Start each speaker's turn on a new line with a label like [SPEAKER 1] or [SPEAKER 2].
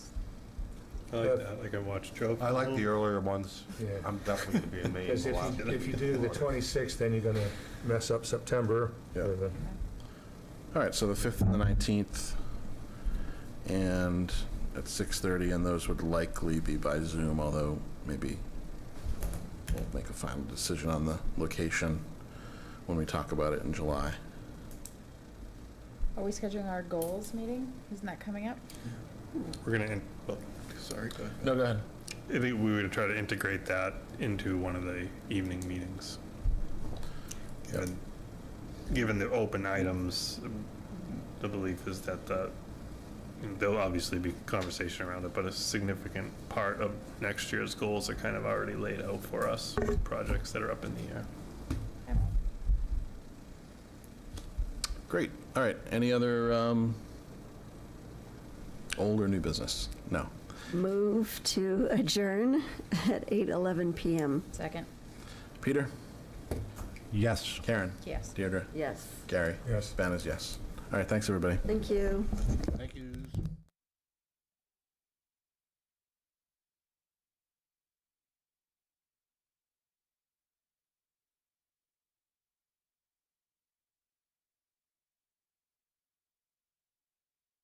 [SPEAKER 1] I like that, like I watched Joe.
[SPEAKER 2] I like the earlier ones.
[SPEAKER 3] Yeah.
[SPEAKER 2] I'm definitely going to be in Maine.
[SPEAKER 3] Because
[SPEAKER 2] a
[SPEAKER 3] if
[SPEAKER 2] lot.
[SPEAKER 3] you, if you do the 26th, then you're going to mess up September.
[SPEAKER 4] Yeah.
[SPEAKER 3] or the-
[SPEAKER 4] All right, so the 5th and the 19th, and at 6:30, and those would likely be by Zoom, although maybe we'll make a final decision on the location when we talk about it in July.
[SPEAKER 5] Are we scheduling our goals meeting? Isn't that coming up?
[SPEAKER 1] We're gonna, in- well, sorry, go ahead.
[SPEAKER 4] No, go ahead.
[SPEAKER 1] I think we would try to integrate that into one of the evening meetings. Given, given the open items, the belief is that the, there'll obviously be conversation around it, but a significant part of next year's goals are kind of already laid out for us, projects that are up in the air.
[SPEAKER 4] Great. All right, any other um, old or new business? No.
[SPEAKER 6] Move to adjourn at 8:11 PM.
[SPEAKER 5] Second,
[SPEAKER 4] Peter?
[SPEAKER 2] Yes.
[SPEAKER 4] Karen?
[SPEAKER 5] yes.
[SPEAKER 4] Deirdre?
[SPEAKER 6] Yes,
[SPEAKER 4] Gary?
[SPEAKER 3] Yes.
[SPEAKER 4] Ben is yes. All right, thanks, everybody.
[SPEAKER 6] thank you.
[SPEAKER 4] Thank you.